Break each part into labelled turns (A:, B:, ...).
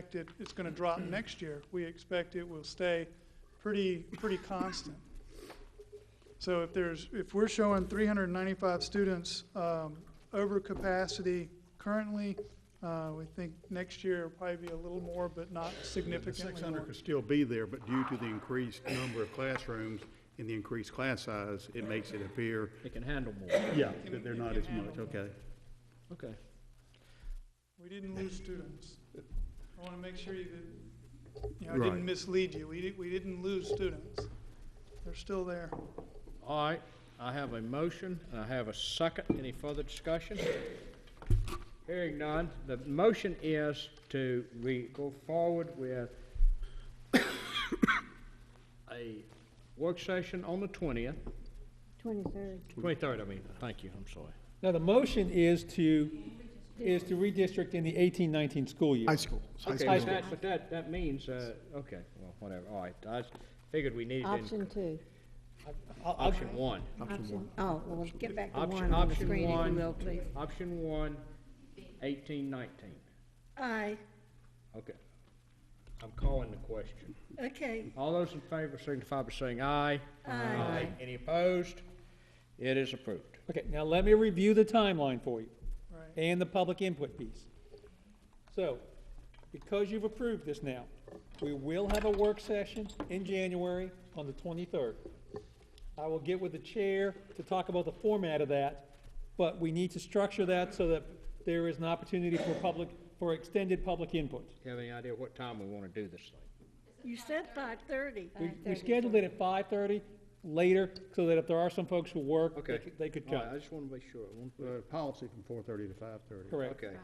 A: expect it- it's going to drop next year. We expect it will stay pretty, pretty constant. So if there's, if we're showing 395 students um, over capacity currently, uh, we think next year will probably be a little more, but not
B: The
A: significantly
B: six
A: more.
B: hundred could still be there, but due to the increased number of classrooms and the increased class size, it makes it appear,
C: It can handle more.
B: yeah, that they're not as much, okay.
C: Okay.
A: We didn't lose students. I want to make sure you didn't, you know, I
B: Right.
A: didn't mislead you. We didn't, we didn't lose students. They're still there.
C: All right, I have a motion, and I have a second. Any further discussion? Hearing none, the motion is to, we go forward with a work session on the twentieth,
D: Twenty-third.
C: twenty-third, I mean, thank you, I'm sorry.
E: Now, the motion is to, is to redistrict in the eighteen, nineteen school year.
F: High school. high
C: Okay,
F: school.
C: but that, but that, that means, uh, okay, well, whatever, all right, I figured we needed. in-
D: Option two.
C: Option one.
D: Option Oh, well, get back to
C: Option,
D: one on the
C: option
D: screen if you will,
C: one,
D: please.
C: option one, eighteen, nineteen.
D: Aye,
C: Okay. I'm calling the question.
D: okay.
C: All those in favor signify by saying aye. Aye. Any opposed? It is approved.
E: Okay, now let me review the timeline for you
A: Right.
E: and the public input piece. So, because you've approved this now, we will have a work session in January on the twenty-third. I will get with the chair to talk about the format of that, but we need to structure that so that there is an opportunity for public, for extended public input.
C: Do you have any idea what time we want to do this thing?
D: You said five-thirty.
E: We, we scheduled it at five-thirty, later, so that if there are some folks who work, they
C: Okay.
E: could- they could
C: All right,
E: come.
C: I just want to be sure. I want-
B: Uh, policy from four thirty to five thirty.
E: Correct.
C: Okay.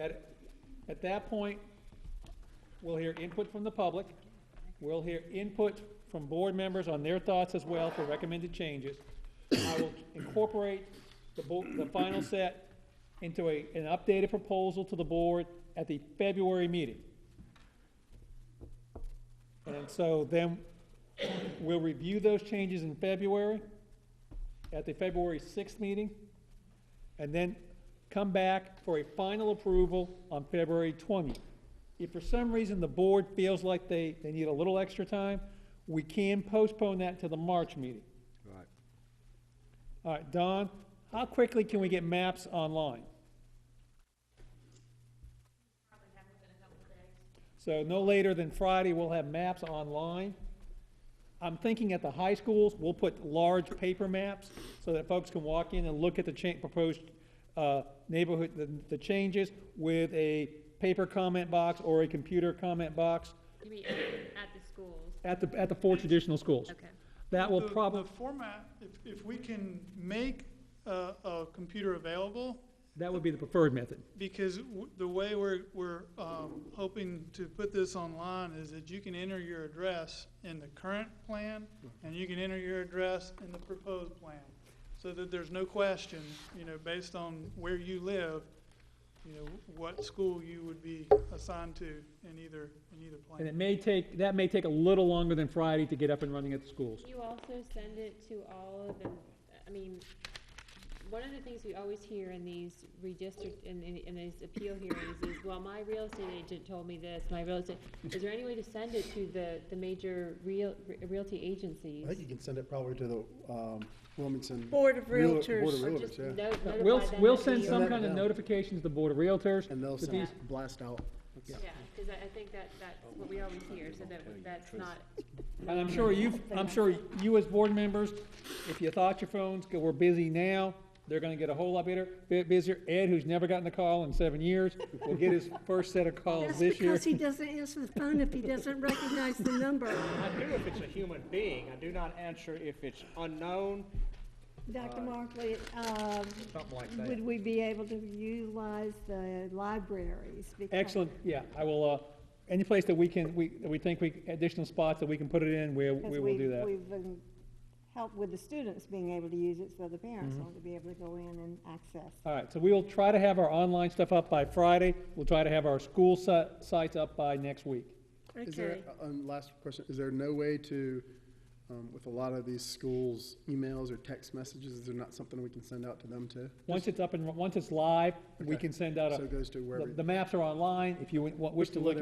E: At, at that point, we'll hear input from the public, we'll hear input from board members on their thoughts as well for recommended changes. I will incorporate the bo, the final set into a, an updated proposal to the board at the February meeting. And so then, we'll review those changes in February, at the February sixth meeting, and then come back for a final approval on February 20th. If for some reason the board feels like they, they need a little extra time, we can postpone that to the March meeting.
C: Right.
E: All right, Don, how quickly can we get maps online? So no later than Friday, we'll have maps online. I'm thinking at the high schools, we'll put large paper maps so that folks can walk in and look at the cha- proposed, uh, neighborhood, the, the changes with a paper comment box or a computer comment box
G: You mean at, at the schools?
E: at the, at the four traditional schools.
G: Okay.
E: That will
A: The-
E: probably,
A: The format, if, if we can make a, a computer available,
E: that would be the preferred method.
A: because w- the way we're, we're um, hoping to put this online is that you can enter your address in the current plan, and you can enter your address in the proposed plan, so that there's no question, you know, based on where you live, you know, what school you would be assigned to in either, in either
E: And
A: plan.
E: it may take, that may take a little longer than Friday to get up and running at the schools.
G: You also send it to all of them, I mean, one of the things we always hear in these redistrict, in, in, in these appeal hearings is, well, my real estate agent told me this, my real estate, is there any way to send it to the, the major real, realty agencies?
F: I think you can send it probably to the um, Wilmington.
D: Board of
F: Real-
D: Realtors.
F: Board of
G: Or just
F: Realtors, yeah.
G: no- notify
E: We'll,
G: them
E: we'll
G: that
E: send
G: you-
E: some
F: that
E: kind of
F: down.
E: notification to the Board of Realtors.
F: And they'll
E: that
F: send,
E: these-
F: blast out.
G: Yeah, cause I, I think that, that's what we always hear, so that, that's not,
E: And I'm sure you've, I'm sure you as board members, if you thought your phones go- were busy now, they're gonna get a whole lot better, bit busier. Ed, who's never gotten a call in seven years, will get his first set of calls
D: That's
E: this year.
D: because he doesn't answer the phone if he doesn't recognize the number.
C: I do if it's a human being. I do not answer if it's unknown,
D: Dr. Markley, um,
C: something like that.
D: would we be able to utilize the libraries? Because-
E: Excellent, yeah, I will, uh, any place that we can, we, that we think we, additional spots that we can put it in, we,
D: because
E: we will do
D: we've-
E: that.
D: We've been helped with the students being able to use it, so the parents
E: Mm-hmm.
D: ought to be able to go in and access.
E: All right, so we will try to have our online stuff up by Friday. We'll try to have our school si- sites up by next week.
F: Is there, uh, um, last question, is there no way to um, Um, With a lot of these schools' emails or text messages, they're not something we can send out to them too.
E: Once it's up and, once it's live, we
F: Okay.
E: can send out
F: So
E: a,
F: it goes to wherever.
E: the- the maps are online, if you wa- wish to
F: to
E: look